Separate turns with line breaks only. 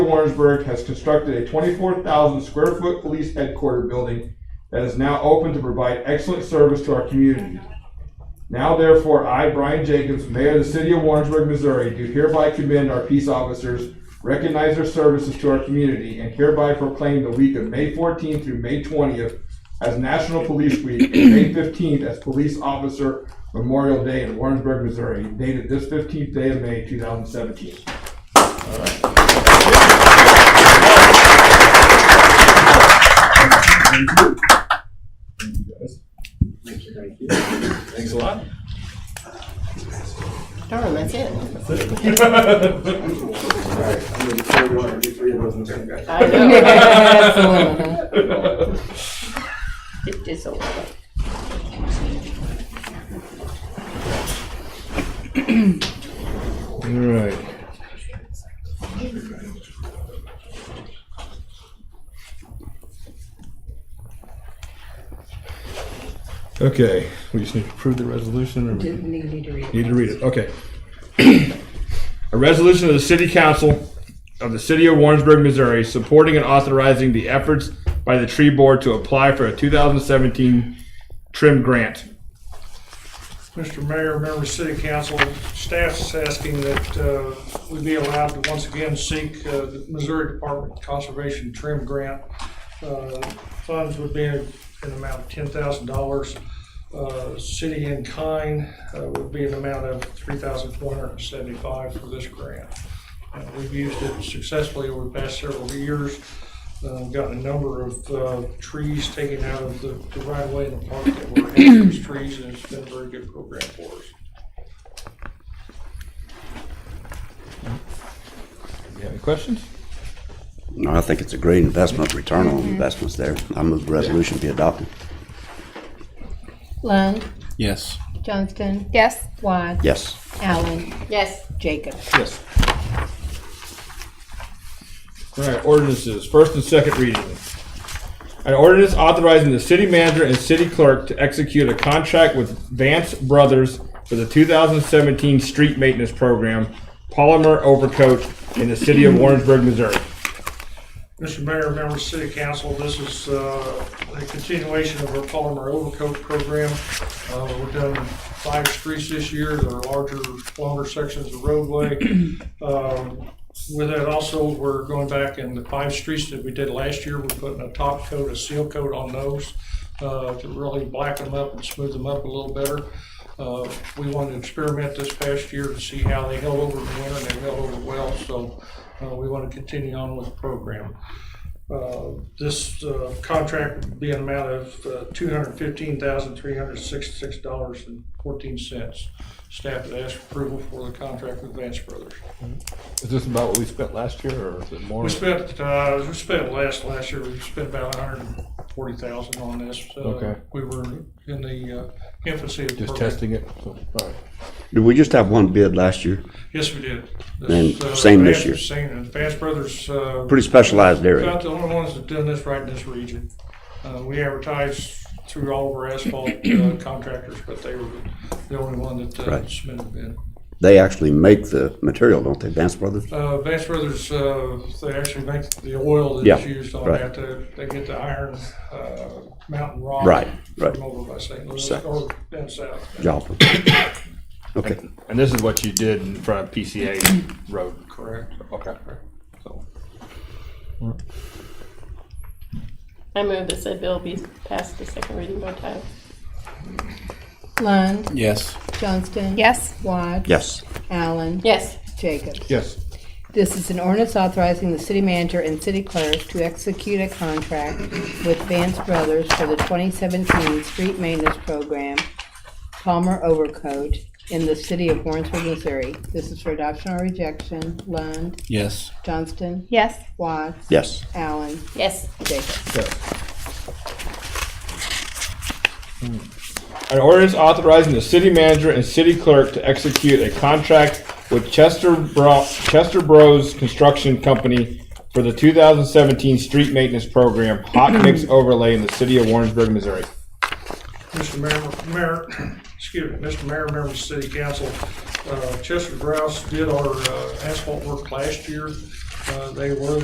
Warrensburg has constructed a twenty-four thousand square foot police headquarters building that is now open to provide excellent service to our community. Now therefore, I, Brian Jacobs, Mayor of the City of Warrensburg, Missouri, do hereby commend our peace officers, recognize their services to our community, and hereby proclaim the week of May fourteenth through May twentieth as National Police Week, and May fifteenth as Police Officer Memorial Day in Warrensburg, Missouri, dated this fifteenth day of May, two thousand seventeen.
Thanks a lot.
Darn, that's it. I know. It is a lot.
All right. Okay, we just need to approve the resolution or we
Didn't need to read it.
need to read it, okay. A resolution of the city council of the city of Warrensburg, Missouri, supporting and authorizing the efforts by the tree board to apply for a two thousand seventeen trim grant.
Mr. Mayor, members of City Council, staff is asking that uh, we be allowed to once again seek uh, the Missouri Department of Conservation Trim Grant. Uh, Funds would be an amount of ten thousand dollars. Uh, City in kind uh, would be an amount of three thousand four hundred and seventy-five for this grant. Uh, We've used it successfully over the past several years. Uh, Gotten a number of uh, trees taken out of the the right of way in the park that were hazardous trees, and it's been a very good program for us.
You have any questions?
No, I think it's a great investment, return on investments there. I move the resolution be adopted.
Lund,
Yes.
Johnston,
Yes.
Watts,
Yes.
Allen,
Yes.
Jacobs.
Yes. All right, ordinances, first and second reading. An ordinance authorizing the city manager and city clerk to execute a contract with Vance Brothers for the 2017 street maintenance program, polymer overcoat in the city of Warrensburg, Missouri.
Mr. Mayor, members of City Council, this is uh, a continuation of our polymer overcoat program. Uh, We've done five streets this year, there are larger, longer sections of roadway. Um, With that also, we're going back in the five streets that we did last year, we're putting a top coat, a seal coat on those uh, to really black them up and smooth them up a little better. Uh, We wanted to experiment this past year to see how they held over the winter, and they held over well, so uh, we want to continue on with the program. Uh, This uh, contract would be an amount of uh, $215,366.14. Staff has asked approval for the contract with Vance Brothers.
Is this about what we spent last year, or is it more?
We spent, uh, we spent last, last year, we spent about $140,000 on this. Uh,
Okay.
We were in the uh, infancy of the
Just
program.
testing it, so, all right.
Did we just have one bid last year?
Yes, we did.
And
uh,
same this
Vance-
year.
Same, and Vance Brothers. uh,
Pretty specialized area.
About the only ones that done this right in this region. Uh, we advertised through all of our asphalt uh, contractors, but they were the only one that uh,
Right.
submitted bid.
They actually make the material, don't they, Vance Brothers?
Uh, Vance Brothers, uh, they actually make the oil
Yeah,
that's used on
right.
that. They, they get the iron, uh, mountain rock.
Right, right.
From over by St. Louis
So-
or down south.
Joplin. Okay.
And this is what you did in front of PCA Road?
Correct.
Okay. So,
I move that said bill be passed the second reading by title.
Lund,
Yes.
Johnston.
Yes.
Watts.
Yes.
Allen,
Yes.
Jacobs.
yes.
This is an ordinance authorizing the city manager and city clerk to execute a contract with Vance Brothers for the 2017 street maintenance program, Palmer Overcoat, in the city of Warrensburg, Missouri. This is for adoption or rejection. Lund,
Yes.
Johnston,
Yes.
Watts,
Yes.
Allen,
Yes.
Jacobs.
An ordinance authorizing the city manager and city clerk to execute a contract with Chester Bro, Chester Bros Construction Company for the 2017 street maintenance program, hot mix overlay in the city of Warrensburg, Missouri.
Mr. Mayor, Mayor, excuse me, Mr. Mayor, members of City Council, uh, Chester Grouse did our uh, asphalt work last year. Uh, They were